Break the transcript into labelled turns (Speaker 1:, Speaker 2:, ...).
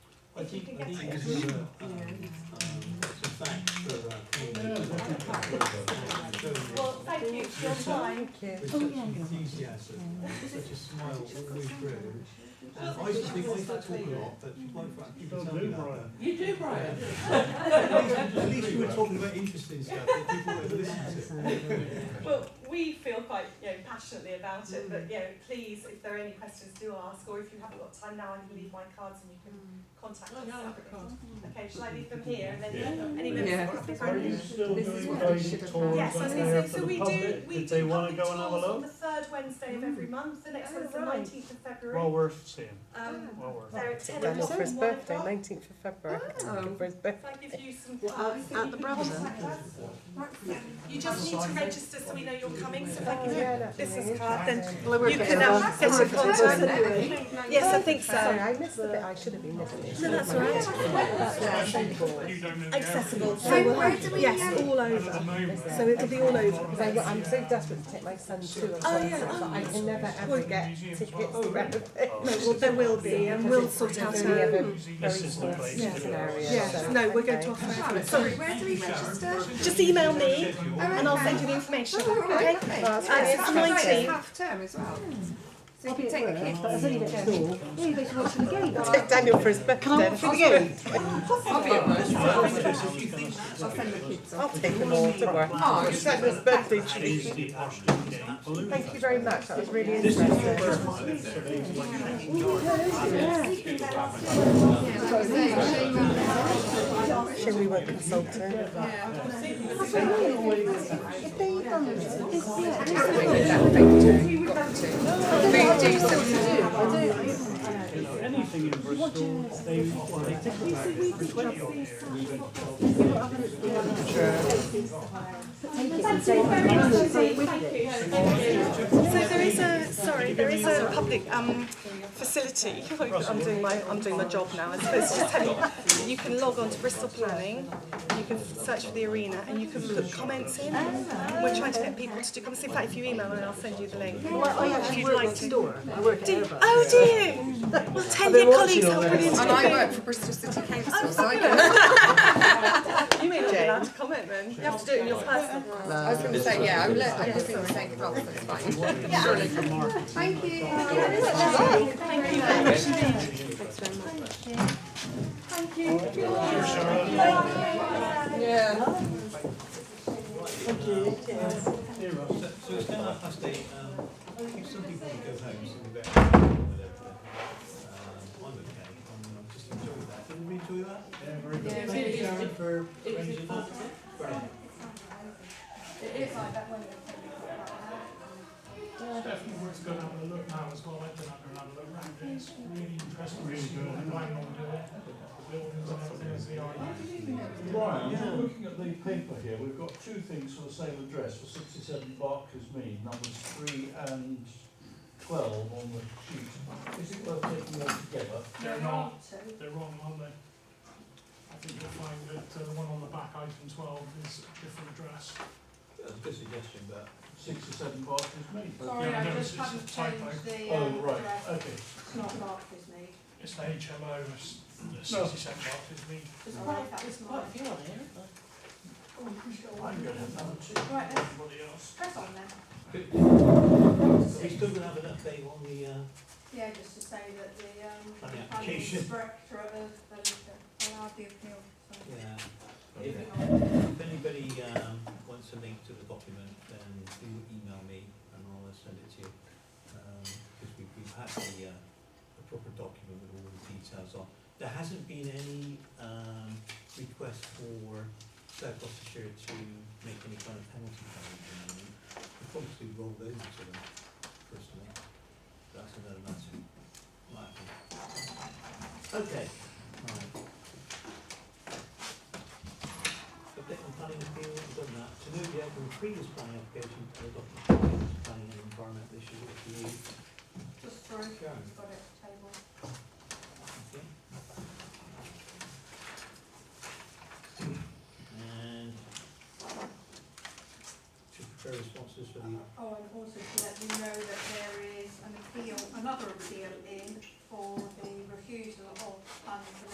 Speaker 1: I think, I think
Speaker 2: Thank
Speaker 1: it's,
Speaker 2: you.
Speaker 1: uh, um, so thanks for, uh, coming.
Speaker 2: Well, thank you for your time.
Speaker 1: With such enthusiasm, and such a smile all the way through. And I used to think I used to talk a lot, but my fact, people tell me that. uh,
Speaker 2: You do, Brian.
Speaker 1: At least- at least you were talking about interesting stuff that people would listen to.
Speaker 2: Well, we feel quite, you know, passionately about it, but, you know, please, if there are any questions, do ask, or if you haven't got time now, I can leave my cards and you can contact us. Okay, shall I leave them here and then any
Speaker 3: Yeah.
Speaker 2: members of the
Speaker 4: Are you
Speaker 2: group?
Speaker 4: still
Speaker 3: This is
Speaker 4: doing
Speaker 3: what they
Speaker 4: guided
Speaker 3: should have
Speaker 4: tours
Speaker 3: had.
Speaker 2: Yes, I
Speaker 4: out
Speaker 2: was
Speaker 4: there
Speaker 2: gonna say,
Speaker 4: for
Speaker 2: so
Speaker 4: the
Speaker 2: we do,
Speaker 4: public,
Speaker 2: we
Speaker 4: if they
Speaker 2: do
Speaker 4: wanna
Speaker 2: public
Speaker 4: go
Speaker 2: tours
Speaker 4: and have a
Speaker 2: on the
Speaker 4: look?
Speaker 2: third Wednesday of every month, the next
Speaker 4: Oh,
Speaker 2: one's the
Speaker 4: right.
Speaker 2: nineteenth of
Speaker 4: Well
Speaker 2: February.
Speaker 4: worth seeing,
Speaker 2: Um,
Speaker 4: well worth.
Speaker 2: they're at ten
Speaker 5: Dan's
Speaker 2: o'clock
Speaker 5: for his
Speaker 2: and one
Speaker 5: birthday,
Speaker 2: o'clock.
Speaker 5: 19th of February.
Speaker 3: Oh.
Speaker 5: For his birthday.
Speaker 2: If I give you some
Speaker 3: Uh,
Speaker 2: cards,
Speaker 5: at the Brabazon?
Speaker 2: contact us. You just need to register so we know you're coming, so if I give you
Speaker 5: Yeah, that's
Speaker 2: this
Speaker 5: right.
Speaker 2: is card, then
Speaker 5: we're
Speaker 2: you
Speaker 5: getting
Speaker 2: can,
Speaker 5: along.
Speaker 2: um, get
Speaker 5: We're
Speaker 2: in
Speaker 5: getting
Speaker 2: contact.
Speaker 5: along.
Speaker 2: Yes, I think so.
Speaker 5: Sorry, I missed the bit. I should have been listening.
Speaker 2: No, that's all right. Accessible. So,
Speaker 5: where do we
Speaker 2: yes, all over. So it'll be all over.
Speaker 5: Because I, I'm so desperate to take my son to a concert,
Speaker 2: Oh, yeah,
Speaker 5: but I can never ever get tickets to everything.
Speaker 2: No, well, there will be, and we'll sort out
Speaker 5: There's only
Speaker 2: a.
Speaker 5: ever very
Speaker 4: This is the
Speaker 5: small
Speaker 4: place to do it.
Speaker 5: scenario,
Speaker 2: Yeah,
Speaker 5: so-
Speaker 2: no, we're going
Speaker 5: okay.
Speaker 2: to offer it from it.
Speaker 6: Sorry,
Speaker 2: Sorry,
Speaker 6: where do we register?
Speaker 2: just email me
Speaker 1: Schedule.
Speaker 2: and I'll send you the information,
Speaker 6: Oh,
Speaker 2: okay?
Speaker 6: okay.
Speaker 5: Well,
Speaker 2: Uh, it's the
Speaker 6: Sorry, it's
Speaker 2: 19th.
Speaker 6: half term as well. So you
Speaker 7: I'll be
Speaker 6: can
Speaker 7: at
Speaker 6: take the
Speaker 7: work,
Speaker 6: kids.
Speaker 7: but I've only got two. Yeah, you better watch the game.
Speaker 5: Take Daniel for his birthday.
Speaker 7: Can I watch the game?
Speaker 6: I'll be at work.
Speaker 1: Well,
Speaker 6: I'll send the kids
Speaker 5: I'll
Speaker 6: off.
Speaker 5: take them all to work.
Speaker 6: Oh,
Speaker 5: It's Daniel's birthday treat.
Speaker 4: Tuesday afternoon.
Speaker 5: Thank you very much. That was really interesting.
Speaker 6: So shame on them.
Speaker 5: Shame we weren't consulted.
Speaker 7: If they done it, it's- yeah, it's-
Speaker 6: But you do still do.
Speaker 4: Anything in Bristol, they, they take it back for twenty odd years.
Speaker 2: So there is a, sorry, there is a public um, facility. I'm doing my, I'm doing my job now. I suppose to tell you, that you can log on to Bristol Planning, you can search for the arena, and you can put comments in. We're trying to get people to do comments. In fact, if you email me, I'll send you the link. If you'd like to. Do- Oh, do you? Well, tell your colleagues how brilliant
Speaker 6: And
Speaker 2: it
Speaker 6: I
Speaker 2: is.
Speaker 6: work for Bristol City Council, so I go.
Speaker 2: You may not be allowed to comment then. You have to do it in your personal.
Speaker 6: I was going to say, yeah, I would let like, people take the role, so it's fine. Surely. Thank you. Yeah.
Speaker 1: So, so it's now half past eight, um, I think some people would go home, so we better. Um, I'm okay, I'm, I'm just enjoying that, didn't we enjoy that? Yeah, very good. Thank you Sharon for arranging that. Very good.
Speaker 8: Definitely worth going to have a look now as well, I've been up there and had a look round, and it's really interesting, really good, and I know the buildings and everything as they are.
Speaker 4: Brian, just looking at the paper here, we've got two things for the same address, for sixty-seven Barker's Mead, numbers three and twelve on the sheet. Is it worth taking them together?
Speaker 8: They're not, they're wrong, aren't they? I think you'll find that uh, the one on the back, item twelve, is a different address.
Speaker 1: That's a good suggestion, but
Speaker 4: Sixty-seven Barker's Mead?
Speaker 8: Sorry, I just haven't changed the.
Speaker 4: Oh,
Speaker 8: um,
Speaker 4: right, okay.
Speaker 8: It's the HMO, it's the sixty-seven Barclays Mead.
Speaker 4: I'm gonna have another two.
Speaker 8: Everybody else.
Speaker 1: are we still gonna have an update on the, uh,
Speaker 9: Yeah, just to say that the,
Speaker 1: on
Speaker 9: um,
Speaker 1: the
Speaker 9: planning
Speaker 1: application?
Speaker 9: directorate of, the- allowed the appeal, so.
Speaker 1: Yeah. If,
Speaker 9: moving on.
Speaker 1: if anybody, um, wants a link to the document, then do email me and I'll uh, send it to you. Um, because we, we've had the, uh, the proper document with all the details on. There hasn't been any, um, request for South Gloucestershire to make any kind of penalty payment at the moment. We probably rolled over to them personally. That's another matter. Might be. Okay, right. Update on planning appeal, we've done that. To note the outcome of previous planning application for the document, planning and environmental issues at the E. EU.
Speaker 9: just through,
Speaker 1: Sharon,
Speaker 9: you've got it table.
Speaker 1: okay? And to prepare responses for the,
Speaker 9: Oh, and also to let you know that there is an appeal, another appeal in for the refusal of planning